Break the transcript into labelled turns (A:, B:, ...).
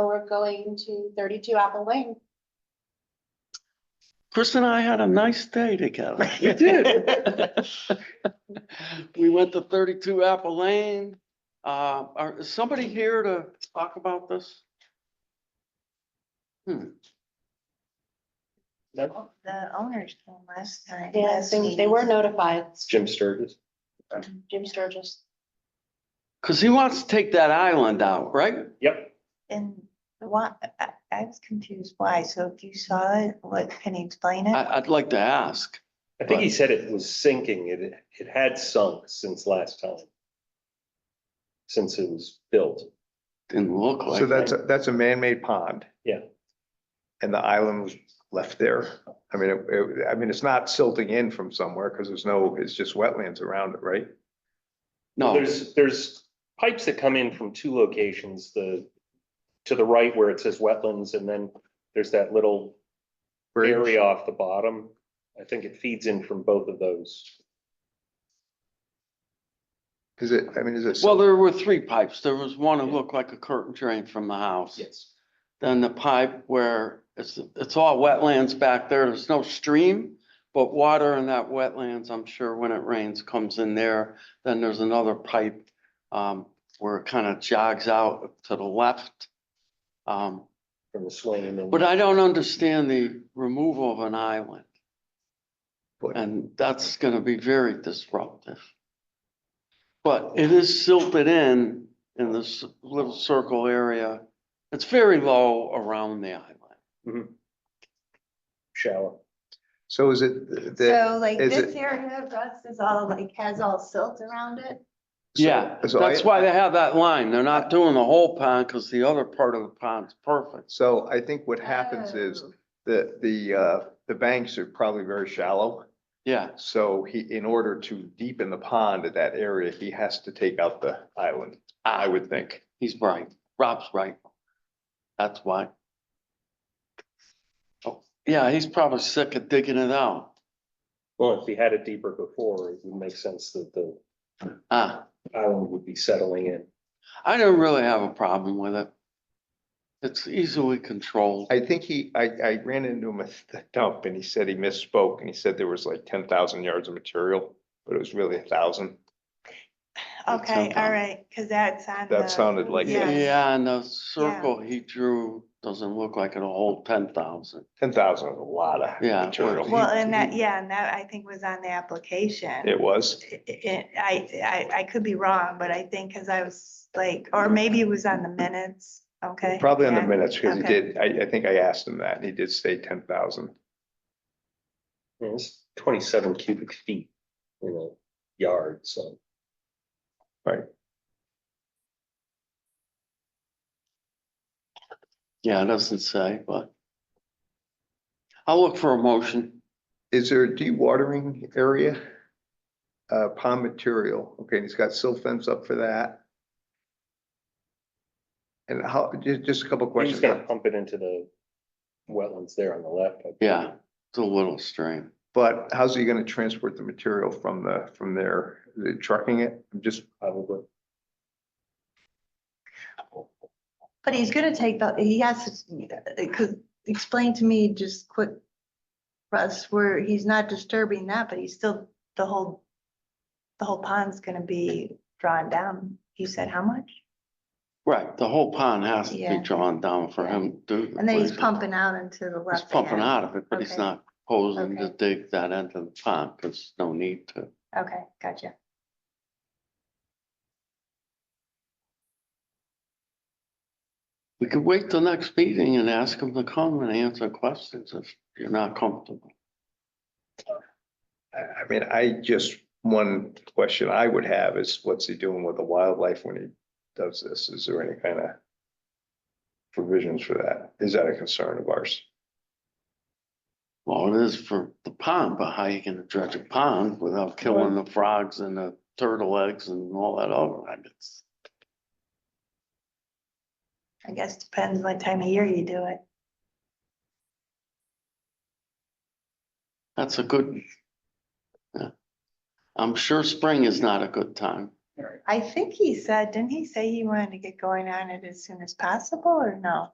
A: So we're going to thirty-two Apple Lane.
B: Chris and I had a nice day together. We did. We went to thirty-two Apple Lane. Uh, are, is somebody here to talk about this? Hmm.
C: No,
D: The owners came last time.
A: Yeah,
D: last
A: they, they were
D: meeting.
A: notified,
C: it's Jim Sturgis.
A: Jim Sturgis.
B: Cause he wants to take that island out, right?
C: Yep.
D: And why, I, I was confused why. So if you saw it, what, can you explain it?
B: I, I'd like to ask.
C: I think he said it was sinking. It, it had sunk since last time. Since it was built.
B: Didn't look like.
E: So that's, a that's a man-made pond.
C: Yeah.
E: And the island was left there. I mean, it- it, I mean, it's not silting in from somewhere because there's no, it's just wetlands around it, right?
B: No,
C: There's, there's pipes that come in from two locations, the, to the right where it says wetlands, and then there's that little
E: Bridge.
C: area off the bottom. I think it feeds in from both of those.
E: Is it, I mean, is it?
B: well,
E: silt-
B: there were three pipes. There was one that looked like a curtain drain from the house.
C: Yes.
B: Then the pipe where it's, it's all wetlands back there. There's no stream, but water in that wetlands, I'm sure when it rains comes in there. Then there's another pipe, um, where it kind of jogs out to the left. Um,
C: From the Swain and.
B: but I don't understand the removal of an island.
E: But-
B: And that's gonna be very disruptive. But it is silted in, in this little circle area. It's very low around the island.
C: Shower.
E: So is it the?
D: So like
E: is
D: this
E: it-
D: area of Russ is all like, has all silt around it?
E: so-
B: Yeah,
E: so I-
B: that's why they have that line. They're not doing the whole pond, cause the other part of the pond's perfect.
E: So I think what happens is
D: Oh.
E: the, the, uh, the banks are probably very shallow.
B: Yeah,
E: So he, in order to deepen the pond at that area, he has to take out the island, I would think.
B: he's right. Rob's right. That's why. Oh, Yeah, he's probably sick of digging it out.
C: Well, if he had it deeper before, it would make sense that the
B: Ah.
C: island would be settling in.
B: I don't really have a problem with it. It's easily controlled.
E: I think he, I, I ran into him at the dump and he said he misspoke and he said there was like ten thousand yards of material, but it was really a thousand.
B: That
D: Okay,
B: sounds
D: all
B: on-
D: right, because that's on.
E: That
D: the-
E: sounded like it.
D: yeah.
B: Yeah, and the circle he drew doesn't look like it'll hold ten thousand.
E: Ten thousand is a lot of
B: Yeah,
E: material.
D: Well, uh, and that,
A: Mm-hmm.
B: Mhm.
D: yeah, and that I think was on the application.
E: It was.
D: I- I, I, I- I could be wrong, but I think, because I was like, or maybe it was on the minutes, okay?
E: Probably in the
D: yeah.
E: minutes because he
D: okay.
E: did, I, I think I asked him that and he did say ten thousand.
C: Yeah, It's twenty-seven cubic feet in a yard, so.
B: Yeah, it doesn't say, but. I'll look for a motion.
E: Is there a dewatering area? Uh, pond material, okay, and he's got silt fence up for that. And how, just, just a couple
C: We're just
E: questions.
C: gonna pump it into the wetlands there on the left. I
B: Yeah, it's a little stream.
E: But how's he gonna transport the material from the, from there, Is it trucking it, I'm just,
C: Probably.
D: But he's gonna take the, he has to, could explain to me just quick, Russ, where he's not disturbing that, but he's still, the whole, the whole pond's gonna be drawn down. You said how much?
B: Right, the whole pond has to be
D: Yeah.
B: drawn down for him to. do the
D: And then he's
B: place.
D: pumping out into the
B: He's
D: left.
B: pumping
D: hand.
B: out of it, but he's
D: Okay.
B: not posing to
D: Okay.
B: dig that into the pond, cause no need to.
D: Okay, gotcha.
B: We could wait till next meeting and ask them to come and answer questions if you're not comfortable.
E: I, I mean, I just, one question I would have is what's he doing with the wildlife when he does this? Is there any kind of provisions for that? Is that a concern of ours?
B: Well, it is for the pond, but how you gonna dredge a pond without killing the frogs and the turtle eggs and all that other? I guess.
D: I guess depends what time of year you do it.
B: That's a good. yeah. I'm sure spring is not a good time.
D: I think he said, didn't he say he wanted to get going on it as soon as possible or no?